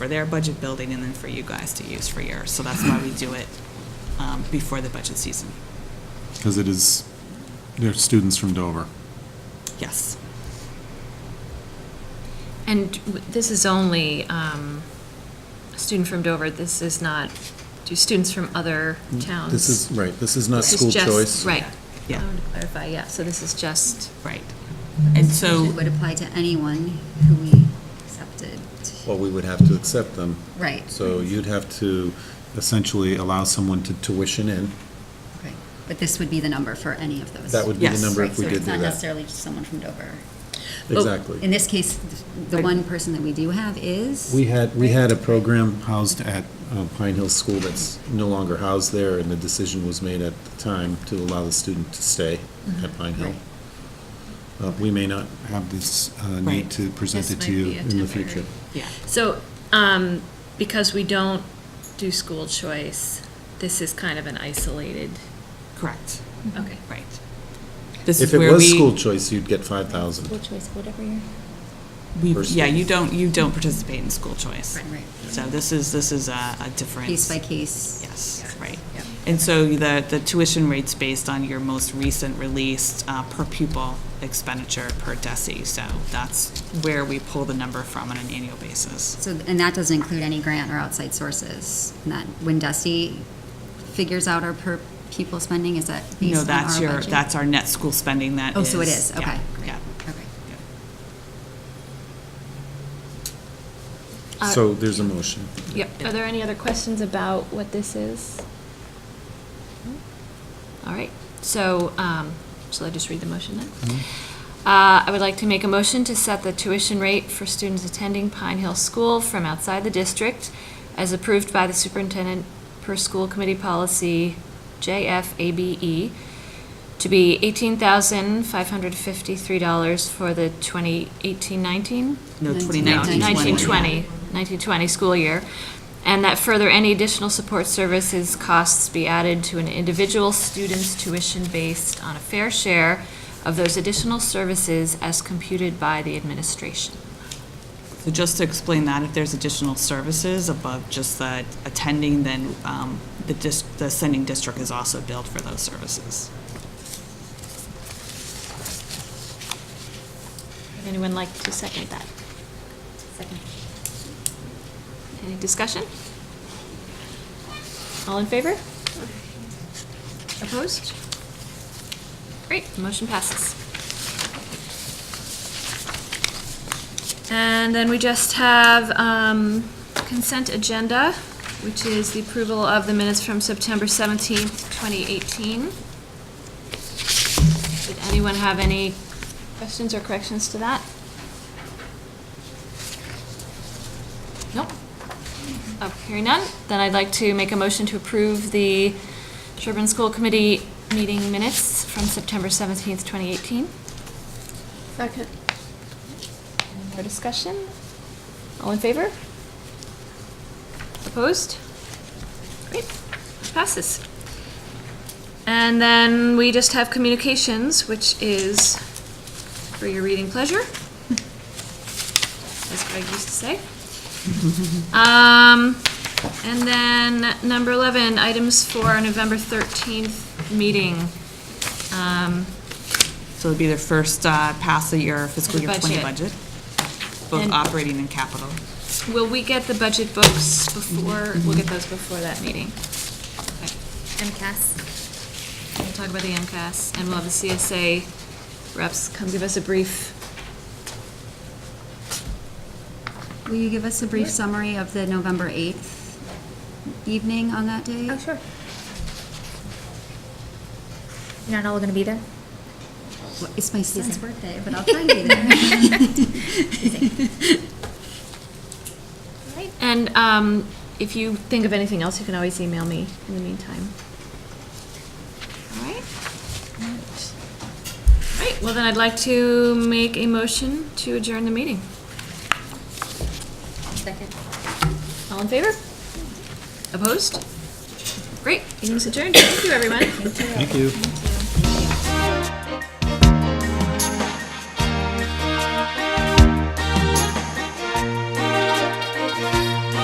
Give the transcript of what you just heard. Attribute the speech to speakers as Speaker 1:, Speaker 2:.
Speaker 1: for their budget building and then for you guys to use for yours. So that's why we do it um, before the budget season.
Speaker 2: Because it is, they're students from Dover.
Speaker 1: Yes.
Speaker 3: And w- this is only um, a student from Dover, this is not, do students from other towns?
Speaker 4: This is, right, this is not
Speaker 3: This is
Speaker 4: school
Speaker 3: just-
Speaker 4: choice.
Speaker 3: Right. I
Speaker 1: Yeah.
Speaker 3: wanted to clarify, yeah, so this is just,
Speaker 1: Right. And
Speaker 5: It
Speaker 1: so,
Speaker 5: would apply to anyone who we accepted.
Speaker 4: Well, we would have to accept them.
Speaker 5: Right.
Speaker 4: So you'd have to essentially allow someone to tuition in.
Speaker 5: Right. But this would be the number for any of those.
Speaker 4: That would be the
Speaker 1: Yes.
Speaker 4: number
Speaker 5: Right,
Speaker 4: if we
Speaker 5: so
Speaker 4: did
Speaker 5: it's
Speaker 4: do
Speaker 5: not
Speaker 4: that.
Speaker 5: necessarily just someone from Dover. In
Speaker 4: Exactly.
Speaker 5: this case, the one person that we do have is.
Speaker 4: We had, we had a program housed at uh, Pine Hill School that's no longer housed there, and the decision was made at the time to allow the student to stay
Speaker 3: Mm-hmm.
Speaker 4: at Pine Hill.
Speaker 5: Right.
Speaker 4: Uh, We may not have this uh,
Speaker 1: Right.
Speaker 4: need to present
Speaker 3: This
Speaker 4: it to
Speaker 3: might
Speaker 4: you
Speaker 3: be a
Speaker 4: in the
Speaker 3: temporary.
Speaker 4: future.
Speaker 1: yeah.
Speaker 3: so um, because we don't do school choice, this is kind of an isolated,
Speaker 1: Correct.
Speaker 3: okay.
Speaker 1: Right. This
Speaker 4: If
Speaker 1: is
Speaker 4: it
Speaker 1: where
Speaker 4: was
Speaker 1: we-
Speaker 4: school choice, you'd get five thousand.
Speaker 5: choice, whatever year.
Speaker 1: we-
Speaker 4: for
Speaker 1: Yeah, you
Speaker 4: students.
Speaker 1: don't, you don't participate in school choice.
Speaker 5: Right, right.
Speaker 1: So this is, this is a, a different.
Speaker 5: Case by case.
Speaker 1: Yes,
Speaker 5: Yeah.
Speaker 1: right.
Speaker 5: Yep.
Speaker 1: And so the, the tuition rate's based on your most recent released uh, per pupil expenditure per DESI. So that's where we pull the number from on an annual basis.
Speaker 5: So, and that doesn't include any grant or outside sources. And that, when Dusty figures out our per pupil spending, is that
Speaker 1: You
Speaker 5: based
Speaker 1: know,
Speaker 5: on
Speaker 1: that's
Speaker 5: our
Speaker 1: your,
Speaker 5: budget?
Speaker 1: that's our net school spending that is.
Speaker 5: Oh, so it is,
Speaker 1: yeah,
Speaker 5: okay. great,
Speaker 1: Yeah.
Speaker 5: Okay.
Speaker 1: yeah.
Speaker 3: Uh,
Speaker 4: So there's a motion.
Speaker 3: Yep.
Speaker 6: Are there any other questions about what this is?
Speaker 3: All right, so, um, shall I just read the motion then? Uh, I would like to make a motion to set the tuition rate for students attending Pine Hill School from outside the district as approved by the superintendent per school committee policy JFABE E to be eighteen thousand five hundred fifty-three dollars for the twenty eighteen nineteen?
Speaker 1: No,
Speaker 5: Nineteen-
Speaker 1: 2019.
Speaker 3: 1920, 1920 school year, and that further, any additional support services costs be added to an individual student's tuition based on a fair share of those additional services as computed by the administration.
Speaker 1: So just to explain that, if there's additional services above just the attending, then um, the dis, the sending district is also billed for those services.
Speaker 6: Would anyone like to second that?
Speaker 5: Second.
Speaker 6: Any discussion? All in favor?
Speaker 3: Opposed? Great, motion passes. And then we just have um, consent agenda, which is the approval of the minutes from September 17th, 2018. Did anyone have any questions or corrections to that? Nope. Oh, hearing none, then I'd like to make a motion to approve the Sherburne School Committee meeting minutes from September 17th, 2018.
Speaker 6: Second. Any more discussion? All in favor?
Speaker 3: Opposed? Great, passes. And then we just have communications, which is for your reading pleasure, as Greg used to say. Um, and then number 11, items for our November 13th meeting. Um,
Speaker 1: So it'll be the first uh, pass of your fiscal
Speaker 3: The
Speaker 1: year 20
Speaker 3: budget.
Speaker 1: budget, both
Speaker 3: And-
Speaker 1: operating and capital.
Speaker 3: Will we get the budget books before, we'll get those before that meeting? Okay.
Speaker 5: MCAS.
Speaker 3: We'll talk about the MCAS, and we'll have the CSA reps come give us a brief.
Speaker 5: Will you give us a brief summary of the November 8th evening on that day?
Speaker 6: Oh, sure. You're not all gonna be there?
Speaker 5: Well, It's my son's birthday, but I'll try to be there.
Speaker 3: And um, if you think of anything else, you can always email me in the meantime. All right? All right, well then I'd like to make a motion to adjourn the meeting.
Speaker 5: Second.
Speaker 3: All in favor? Opposed? Great, meeting's adjourned. Thank you, everyone.
Speaker 4: Thank you.